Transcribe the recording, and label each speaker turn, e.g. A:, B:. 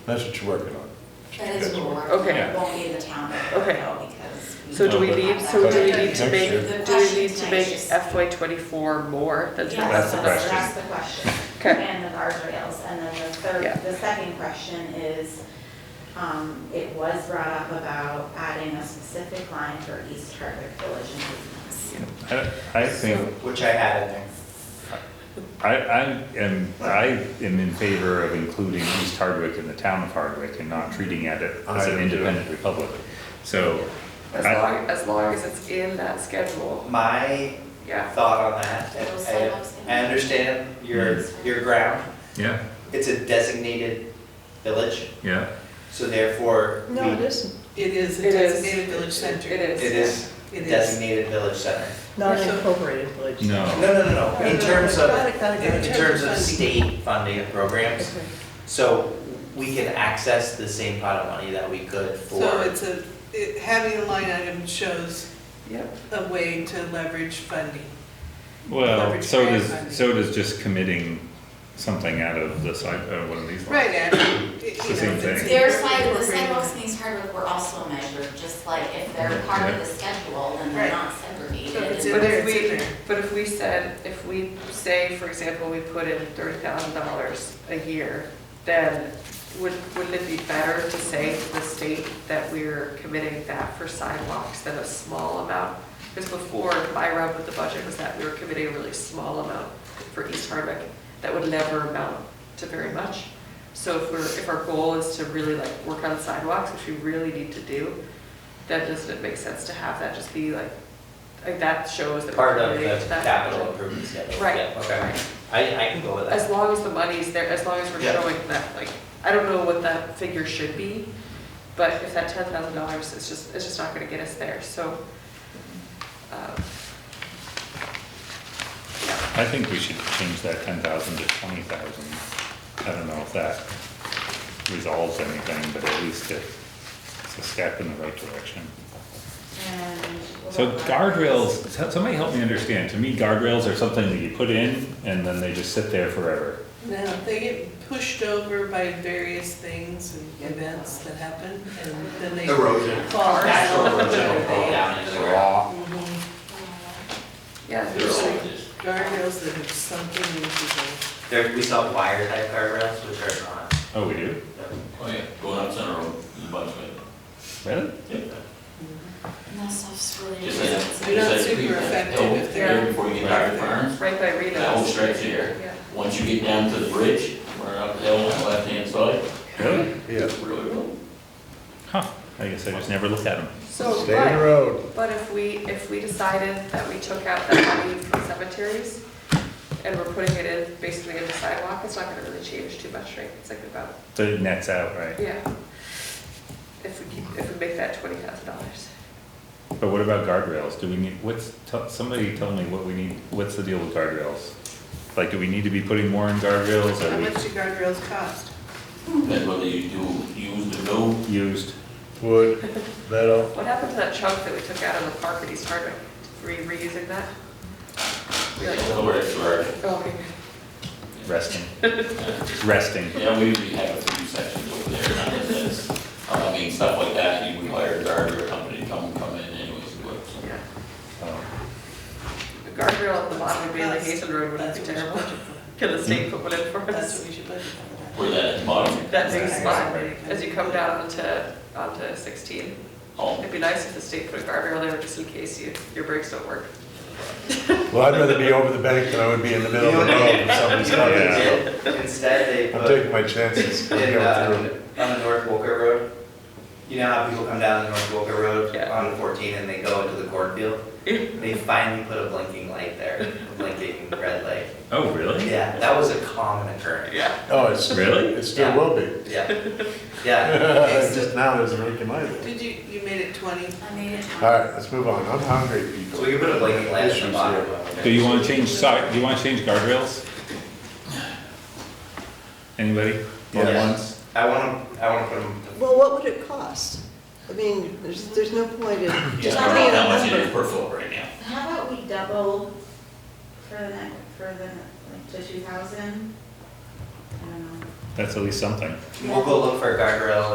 A: That's what you're working on.
B: That is what we're,
C: Okay.
B: it won't be in the town
C: Okay.
B: though, because. we-
C: So do we
A: No, but-
C: need, so do we need to
A: Next
C: make,
A: year.
B: The
C: do we
B: question
C: need to make
B: tonight is-
C: FY twenty-four more? That's what
B: Yes,
A: the
C: I'm
A: question.
B: That's the question.
C: Okay.
B: And the guardrails. And then the
C: Yeah.
B: third, the second question is, um, it was brought up about adding a specific line for East Hardwick Village improvements.
D: I I think,
E: Which I had in there.
D: I, I am, I am in favor of including East Hardwick in the town of Hardwick and not treating it as
A: I am
D: an
A: too.
D: independent republic. So,
C: As
D: I-
C: long, as long as it's in that schedule,
E: My
C: yeah.
E: thought on that, and
B: Those
E: I,
B: sidewalks
E: I understand your, your ground.
D: yeah,
E: It's a designated village,
D: yeah,
E: so therefore, we,
F: No, it
E: it
F: isn't. It
G: is
C: It
G: a
C: is.
G: designated village center.
C: It is.
E: is
G: It is.
E: designated village center.
F: Not an incorporated village.
E: No,
D: no,
E: no, no, no, in terms of,
F: Got it, got it, got
E: in
F: it.
E: in terms of
G: Funding.
E: state funding of programs,
F: Okay.
E: so we can access the same pot of money that we could
G: So
E: for.
G: it's a, it- having a line item shows
C: Yep.
G: a way to leverage funding.
D: well,
G: Leverage
D: so
G: grant funding.
D: does, so does just committing something out of the side, uh, one of these.
G: Right, and, it- you know.
D: It's the same
G: it's
D: thing.
B: Their
G: incorporated
B: side, the
G: program.
B: sidewalks in East Hardwick were also measured, just like if they're part of the schedule, then they're
G: Right.
B: not
G: So
B: segregated.
G: if it's
B: and
G: in
C: But
G: there,
C: if
G: it's in
C: we,
G: there.
C: but if we said, if we say, for example, we put in thirty thousand dollars a year, then would, wouldn't it be better to say to the state that we're committing that for sidewalks than a small amount? Because before, my rub with the budget was that we were committing a really small amount for East Hardwick that would never amount to very much. So if we're, if our goal is to really like work on sidewalks, which we really need to do, then doesn't it make sense to have that just be like, like that shows that. we're
E: Part of
C: committing
E: the
C: to that
E: capital
C: budget.
E: improvement schedule.
C: Right,
E: Yeah, Okay,
C: right.
E: I, I can go with that.
C: As long as the money's there, as long as we're
E: Yeah.
C: showing that, like, I don't know what that figure should be, but if that ten thousand dollars, it's just, it's just not gonna get us there, so. um, yeah.
D: I think we should change that ten thousand to twenty thousand. I don't know if that resolves anything, but at least it- it's a step in the right direction.
B: And-
D: So guardrails, so- somebody help me understand, to me guardrails are something that you put in and then they just sit there forever.
G: No, they get pushed over by various things and events that happen, and then they.
E: Erosion.
G: Fall.
E: Natural
G: down.
E: erosion will fall down into the ground.
G: Mhm.
C: Yeah,
E: They're
C: usually,
E: just-
G: Guardrails that have sunken into the.
E: There, we saw wire type guardrails, which are not,
D: Oh, we do?
H: Oh, yeah, going up Center Road, there's a bunch of it.
D: Really?
B: And that stuff's really.
H: Just that-
G: They're not
H: just that
G: super
H: creek, that
G: effective
H: hill
G: if they're-
H: there Before you get down to Burns,
C: right by Rita's.
H: that whole stretch there.
C: Yeah.
H: Once you get down to the bridge, we're up the hill on the left-hand side.
D: Really?
A: Yeah.
H: Really cool.
D: Huh, I guess I just never looked at them.
C: So,
A: Stay in the
C: but-
A: road.
C: But if we, if we decided that we took out that money from cemeteries and we're putting it in, basically in the sidewalk, it's not gonna really change too much, right? It's like about,
D: So it nets out, right?
C: yeah. If we keep, if we make that twenty thousand dollars.
D: But what about guardrails? Do we need, what's, tell- somebody tell me what we need, what's the deal with guardrails? Like, do we need to be putting more in guardrails?
G: How
D: Are
G: much do guardrails cost?
H: That's what they do, use the go.
D: we used?
A: Wood, metal,
C: What happened to that chunk that we took out of the park at East Hardwick? Re, reusing that? We like-
H: That's where it's where-
C: Oh, okay.
D: Resting. Resting.
H: Yeah, we usually have a few sections over there, not that that's, I mean, stuff like that, you would hire a guardrail company to come, come in anyways, um, do it, so.
C: Yeah.
D: Oh,
C: The guardrail at the bottom of Bailey Hazen Road would
G: That's
C: be
G: what we should
C: terrible.
G: budget for.
C: Can the state put one in for
G: That's
C: us?
G: what we should budget for.
H: Where that at the bottom,
C: That big spot,
G: Right.
C: as you come down onto, onto sixteen.
H: all,
C: It'd be nice if the state put a guardrail there just in case you, your brakes don't work.
A: Well, I'd rather be over the bank than I would be in the middle of the road if something's coming.
E: Yeah. Instead, they
A: so I'm
E: put
A: taking my chances. I'm
E: in,
A: going
E: uh,
A: through.
E: on the North Walker Road. You know how people come down the North Walker Road
C: Yeah.
E: on fourteen and they go into the cornfield? They finally put a blinking light there, a blinking red light.
D: Oh, really?
E: Yeah, that was a common occurrence.
C: Yeah.
A: Oh, it's.
D: Really?
A: It still will be.
E: Yeah, yeah.
A: Just now, there's a leak in my life.
G: Did you, you made it twenty?
B: I made it.
A: All right, let's move on. I'm hungry, people.
E: So we can put a blinking light at
A: Issues
E: the bottom.
A: here.
D: Do you wanna change side, do you wanna change guardrails? Anybody? More than
E: Yeah.
D: once?
E: I want to, I want to put them,
F: Well, what would it cost? I mean, there's, there's no point in
H: yeah,
F: just
H: I don't
F: putting
H: know how much
F: a
H: it is
F: number.
H: per foot right now.
B: How about we double for the, ne- for the, like, to two thousand? I don't know.
D: that's at least something.
E: We'll go look for a guardrail